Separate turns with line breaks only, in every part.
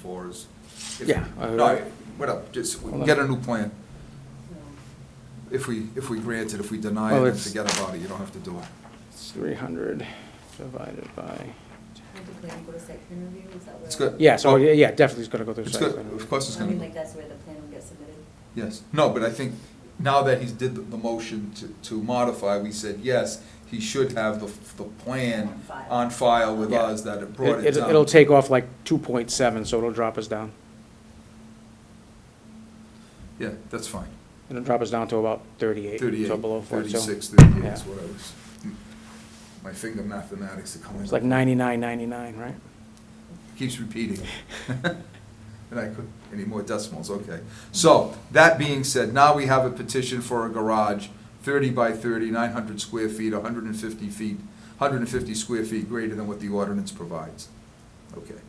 for is. if-
Yeah, I-
No, whatever, just we can get a new plan. If we, if we grant it, if we deny
Well,
it, then
it's-
forget about it, you don't have to do it.
It's 300 divided by,
Have the planning board site plan review, is that where?
It's good.
yeah, so,
Well,
yeah, yeah, definitely it's gonna go through.
Oh. It's
site
good,
plan.
of course it's
I
gonna
mean,
go,
like, that's where the plan will get submitted.
yes. No, but I think now that he's did the- the motion to, to modify, we said, yes, he should have the, the plan
On file.
on file with
Yeah.
us that it brought it
It-
down.
It'll take off like 2.7, so it'll drop us down.
Yeah, that's fine.
It'll drop us down to about 38, so
38,
below 40. so
36, 38 is
yeah.
what I was, my finger mathematics are coming.
It's like
up.
99, 99, right?
keeps repeating. And I could, any more decimals, okay. So, that being said, now we have a petition for a garage, thirty by 30, 900 square feet, hundred and fifty feet, hundred and fifty square feet greater than what the ordinance provides. Okay.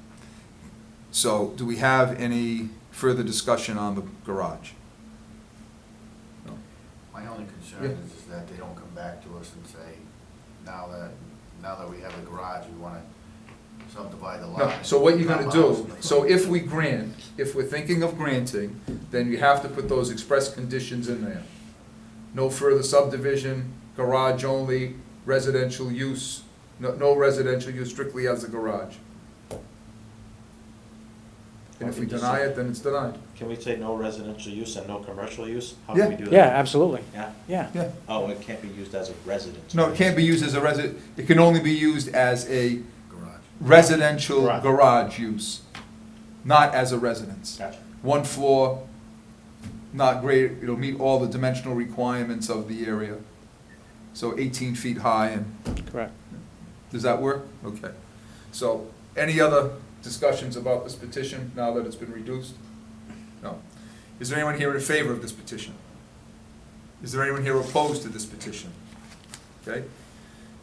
So, do we have any further discussion on the garage? No.
My only concern
Yeah.
is, is that they don't come back to us and say, now that, now that we have a garage, we wanna subdivide the lot.
No, so what you're gonna do, so if we grant, if we're thinking of granting, then you have to put those express conditions in there. No further subdivision, garage only, residential use, no, no residential use strictly as a garage. And if we deny it, then it's denied.
Can we say no residential use and no commercial use? How
Yeah.
can we do that?
Yeah, absolutely,
Yeah?
yeah.
Yeah.
Oh, it can't be used as a residence.
No, it can't be used as a resi, it can only be used as a
Garage.
residential
Garage.
garage use, not as a residence.
Gotcha.
one floor, not great, it'll meet all the dimensional requirements of the area. So eighteen feet high, and,
Correct.
does that work? Okay. So, any other discussions about this petition now that it's been reduced? No. Is there anyone here in favor of this petition? Is there anyone here opposed to this petition? Okay?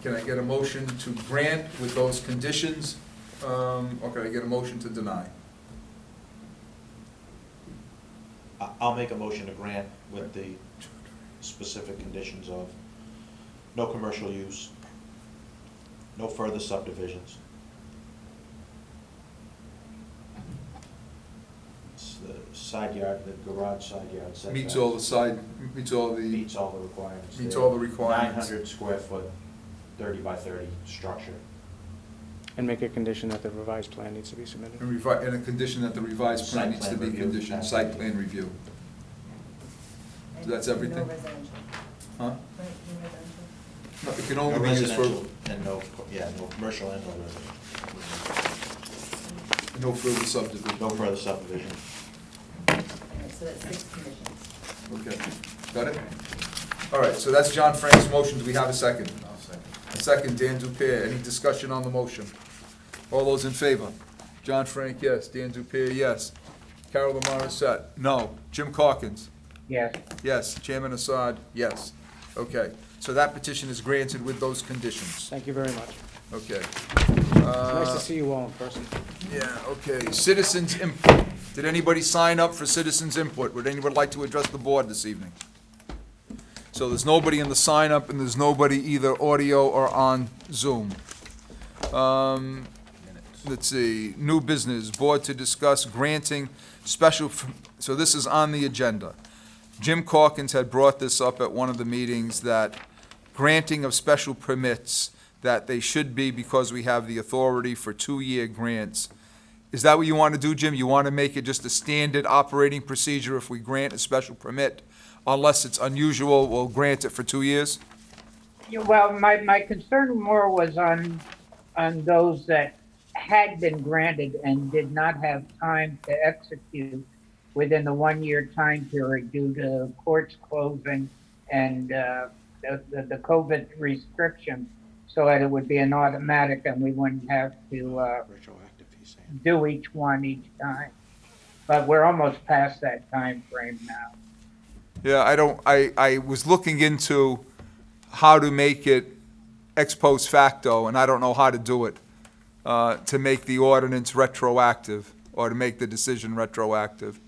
Can I get a motion to grant with those conditions, um, or can I get a motion to deny?
I- I'll make a motion to grant with the specific conditions of no commercial use, no further subdivisions. S- the Side yard, the garage side yard setback.
Meets all the side, meets all the.
Meets all the requirements.
Meets
there.
all the requirements.
900 square foot, 30 by 30 structure.
And make a condition that the revised plan needs to be submitted.
And revi, and a condition that the revised plan
Site
needs to
plan
be
review.
conditioned, site plan review.
Right?
That's
No
everything?
residential,
Huh?
right, no residential.
No, It can
No
only be used
residential
for,
and no, yeah, no commercial and no residential.
no further subdivision.
No further subdivision.
All right, so that's six conditions.
Okay, got it? All right, so that's John Frank's motion, do we have a second?
I'll second.
A Second, Dan Dupere, any discussion on the motion? All those in favor? John Frank, yes, Dan Dupere, yes. Carol Lamar Assad, no. Jim Corkins?
Yes.
Yes. Chairman Assad, yes. Okay, so that petition is granted with those conditions,
Thank you very much.
okay.
Nice
Uh,
to see you all in person.
Yeah, okay, citizens input. Did anybody sign up for citizens input? Would anyone like to address the board this evening? So there's nobody in the sign up and there's nobody either audio or on Zoom. Um, let's see, new business, board to discuss granting special, f- so this is on the agenda. Jim Corkins had brought this up at one of the meetings, that granting of special permits, that they should be because we have the authority for two-year grants. Is that what you want to do, Jim? You want to make it just a standard operating procedure if we grant a special permit? Unless it's unusual, we'll grant it for two years?
Yeah, well, my, my concern more was on, on those that had been granted and did not have time to execute within the one-year time period due to courts closing and, uh, the, the- the COVID restrictions. So that it would be an automatic and we wouldn't have to, uh,
Retroactive, he's saying.
do each one each time. But we're almost past that time frame now.
Yeah, I don't, I, I was looking into how to make it ex post facto, and I don't know how to do it, uh, to make the ordinance retroactive, or to make the decision retroactive.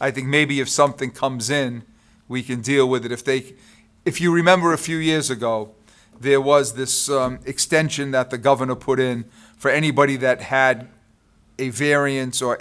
I think maybe if something comes in, we can deal with it. If they, if you remember a few years ago, there was this um, extension that the governor put in for anybody that had a variance or